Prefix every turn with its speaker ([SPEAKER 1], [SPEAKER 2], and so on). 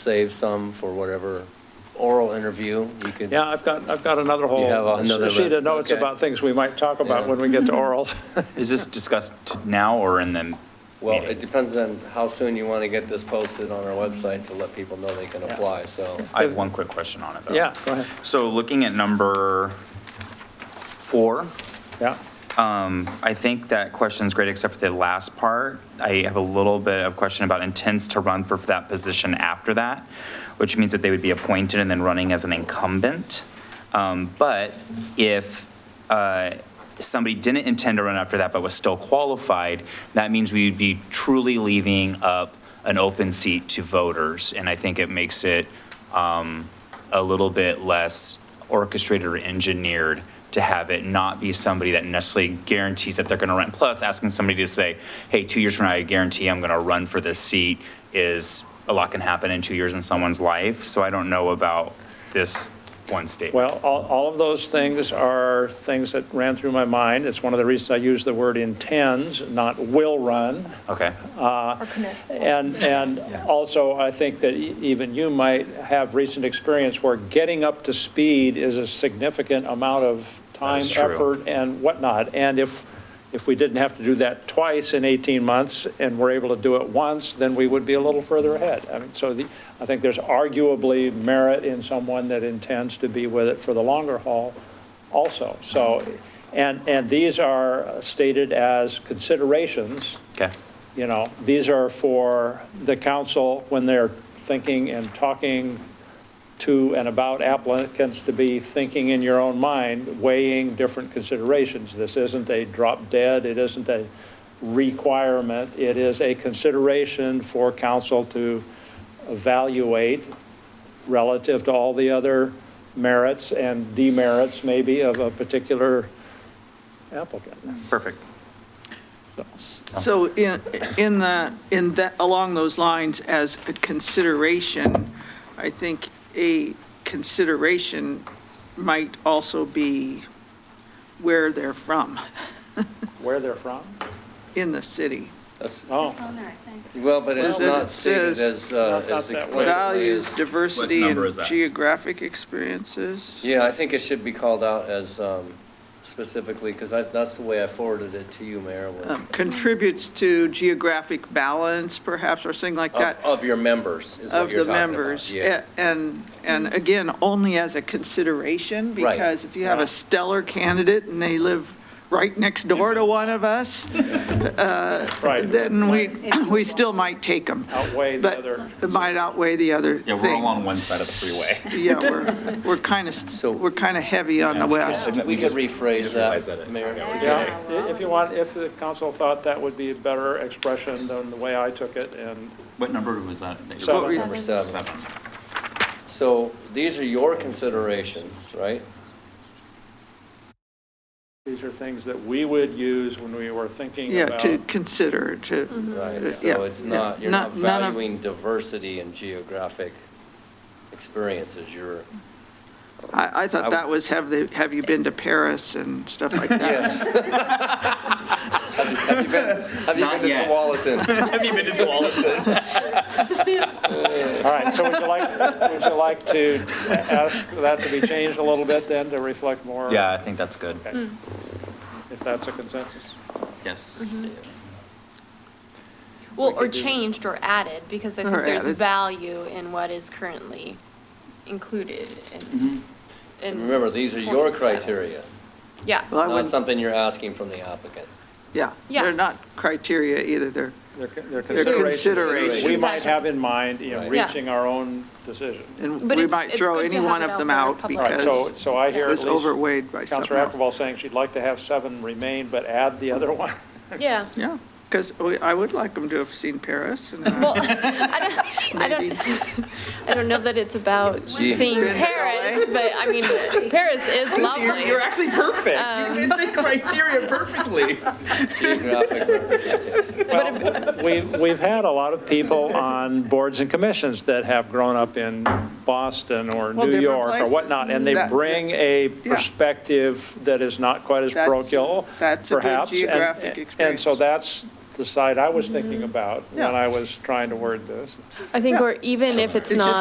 [SPEAKER 1] save some for whatever oral interview you could.
[SPEAKER 2] Yeah, I've got, I've got another whole
[SPEAKER 1] have another
[SPEAKER 2] sheet of
[SPEAKER 1] list,
[SPEAKER 2] notes
[SPEAKER 1] okay.
[SPEAKER 2] about things we might talk about
[SPEAKER 1] Yeah.
[SPEAKER 2] when we get to orals.
[SPEAKER 3] Is this discussed t- now or in the
[SPEAKER 1] Well, it
[SPEAKER 3] meeting?
[SPEAKER 1] depends on how soon you want to get this posted on our website to let people know they can apply, so.
[SPEAKER 3] I have one quick question on it, though.
[SPEAKER 2] Yeah, go ahead.
[SPEAKER 3] So looking at number four,
[SPEAKER 2] Yeah,
[SPEAKER 3] I think that question's great, except for the last part. I have a little bit of question about intends to run for that position after that, which means that they would be appointed and then running as an incumbent. Um, But if uh, somebody didn't intend to run after that but was still qualified, that means we would be truly leaving up an open seat to voters. And I think it makes it um, a little bit less orchestrated or engineered to have it not be somebody that necessarily guarantees that they're going to run. Plus, asking somebody to say, hey, two years from now, I guarantee I'm going to run for this seat is, a lot can happen in two years in someone's life. So I don't know about this one statement.
[SPEAKER 2] well, all, all of those things are things that ran through my mind. It's one of the reasons I use the word intends, not will run.
[SPEAKER 3] Okay,
[SPEAKER 4] Or commits.
[SPEAKER 2] And, and also, I think that e- even you might have recent experience where getting up to speed is a significant amount of time,
[SPEAKER 3] is true.
[SPEAKER 2] effort, and whatnot. And if, if we didn't have to do that twice in 18 months, and we're able to do it once, then we would be a little further ahead. I mean, so the, I think there's arguably merit in someone that intends to be with it for the longer haul also. So, and, and these are stated as considerations
[SPEAKER 3] okay.
[SPEAKER 2] you know, these are for the council when they're thinking and talking to and about applicants to be thinking in your own mind, weighing different considerations. This isn't a drop dead, it isn't a requirement, it is a consideration for council to evaluate relative to all the other merits and demerits maybe of a particular applicant.
[SPEAKER 3] Perfect.
[SPEAKER 5] So in, in the, in that, along those lines, as a consideration, I think a consideration might also be where they're from
[SPEAKER 2] Where they're from?
[SPEAKER 5] in the city.
[SPEAKER 1] that's-
[SPEAKER 2] Oh.
[SPEAKER 6] on there, I think.
[SPEAKER 1] Well, but it's
[SPEAKER 5] Well, then
[SPEAKER 1] not
[SPEAKER 5] it
[SPEAKER 1] stated
[SPEAKER 5] says-
[SPEAKER 1] as, uh,
[SPEAKER 2] Not- not
[SPEAKER 1] as
[SPEAKER 2] that way.
[SPEAKER 1] explicitly.
[SPEAKER 5] Values,
[SPEAKER 1] as-
[SPEAKER 5] diversity,
[SPEAKER 3] What number is
[SPEAKER 5] and
[SPEAKER 3] that?
[SPEAKER 5] geographic experiences.
[SPEAKER 1] Yeah, I think it should be called out as um, specifically, because that's the way I forwarded it to you, Mayor, was
[SPEAKER 5] um, Contributes to geographic balance, perhaps, or something like that.
[SPEAKER 1] of, of your members is what
[SPEAKER 5] of
[SPEAKER 1] you're
[SPEAKER 5] the
[SPEAKER 1] talking about.
[SPEAKER 5] members.
[SPEAKER 1] Yeah,
[SPEAKER 5] A- And, and again, only as a consideration,
[SPEAKER 1] Right.
[SPEAKER 5] because if you have a stellar candidate and they live right next door to one of us,
[SPEAKER 2] Right.
[SPEAKER 5] then we, we still might take them.
[SPEAKER 2] Outweigh the other.
[SPEAKER 5] But it might outweigh the other thing.
[SPEAKER 3] one side of the freeway.
[SPEAKER 5] Yeah, we're, we're kind
[SPEAKER 1] So-
[SPEAKER 5] of, we're kind of heavy on the west.
[SPEAKER 1] we could rephrase
[SPEAKER 3] just realized
[SPEAKER 1] that,
[SPEAKER 3] that it-
[SPEAKER 1] Mayor.
[SPEAKER 2] Yeah, i- if you want, if the council thought that would be a better expression than the way I took it, and
[SPEAKER 3] What number was that? that you-
[SPEAKER 2] So-
[SPEAKER 1] Number seven.
[SPEAKER 3] Seven.
[SPEAKER 1] So these are your considerations, right?
[SPEAKER 2] these are things that we would use when we were thinking
[SPEAKER 5] Yeah,
[SPEAKER 2] about.
[SPEAKER 5] to consider, to,
[SPEAKER 1] Right,
[SPEAKER 5] Yeah,
[SPEAKER 1] so it's not,
[SPEAKER 5] yeah.
[SPEAKER 1] you're not
[SPEAKER 5] Not- none of-
[SPEAKER 1] valuing diversity and geographic experiences, you're,
[SPEAKER 5] I, I
[SPEAKER 1] I-
[SPEAKER 5] thought that was, have they, have you been to Paris and stuff like that?
[SPEAKER 1] yes. Have you- Have you been, have you
[SPEAKER 3] Not
[SPEAKER 1] been to
[SPEAKER 3] yet.
[SPEAKER 1] Tualatin?
[SPEAKER 3] Have you been to Tualatin?
[SPEAKER 2] All right, so would you like, would you like to ask that to be changed a little bit then, to reflect more?
[SPEAKER 3] Yeah, I think that's good.
[SPEAKER 2] Okay. If that's a consensus?
[SPEAKER 3] Yes.
[SPEAKER 6] Well, or changed or added, because I think
[SPEAKER 5] Or
[SPEAKER 6] there's
[SPEAKER 5] added.
[SPEAKER 6] value in what is currently included in.
[SPEAKER 3] Mm-hmm.
[SPEAKER 6] in-
[SPEAKER 1] Mm-hmm. Remember, these are your
[SPEAKER 6] Point seven.
[SPEAKER 1] criteria,
[SPEAKER 6] Yeah,
[SPEAKER 5] Well, I
[SPEAKER 1] not
[SPEAKER 5] wouldn't,
[SPEAKER 1] something you're asking from the applicant.
[SPEAKER 5] yeah,
[SPEAKER 6] Yeah.
[SPEAKER 5] they're not criteria either, they're
[SPEAKER 2] They're con- They're
[SPEAKER 5] They're
[SPEAKER 2] considerations we
[SPEAKER 1] considerations.
[SPEAKER 2] might have in mind in
[SPEAKER 1] Right.
[SPEAKER 6] Yeah.
[SPEAKER 2] reaching our own decision.
[SPEAKER 5] And
[SPEAKER 6] But
[SPEAKER 5] we
[SPEAKER 6] it's-
[SPEAKER 5] might
[SPEAKER 6] it's
[SPEAKER 5] throw
[SPEAKER 6] good to
[SPEAKER 5] any
[SPEAKER 6] have
[SPEAKER 5] one
[SPEAKER 6] it
[SPEAKER 5] of
[SPEAKER 6] out
[SPEAKER 5] them
[SPEAKER 6] there in
[SPEAKER 5] out
[SPEAKER 6] public.
[SPEAKER 2] All right, so,
[SPEAKER 5] because
[SPEAKER 2] so I
[SPEAKER 5] it
[SPEAKER 2] hear at
[SPEAKER 5] was
[SPEAKER 2] least.
[SPEAKER 5] overweighed by something
[SPEAKER 2] Counselor
[SPEAKER 5] else.
[SPEAKER 2] Ackerval saying she'd like to have seven remain, but add the other one.
[SPEAKER 6] yeah.
[SPEAKER 5] Yeah, because I would like them to have seen Paris and uh,
[SPEAKER 6] Well, I don't, I
[SPEAKER 5] maybe,
[SPEAKER 6] don't, I don't know that it's about
[SPEAKER 1] Gee.
[SPEAKER 6] seeing
[SPEAKER 5] Been to
[SPEAKER 6] Paris, but I mean, Paris is lovely.
[SPEAKER 3] actually perfect. You fit the criteria perfectly.
[SPEAKER 1] Geographic representation.
[SPEAKER 2] We've, we've had a lot of people on boards and commissions that have grown up in Boston or New
[SPEAKER 5] Well, different
[SPEAKER 2] York or
[SPEAKER 5] places.
[SPEAKER 2] whatnot, and they
[SPEAKER 5] That-
[SPEAKER 2] bring a perspective that is not quite as
[SPEAKER 5] That's-
[SPEAKER 2] parochial,
[SPEAKER 5] that's a good
[SPEAKER 2] perhaps. and-
[SPEAKER 5] geographic
[SPEAKER 2] And so
[SPEAKER 5] experience. Mm-hmm.
[SPEAKER 2] that's, the side I was thinking about when
[SPEAKER 6] Yeah.
[SPEAKER 2] I was trying to word this.
[SPEAKER 5] I think, or even if it's
[SPEAKER 6] It's just-
[SPEAKER 5] not.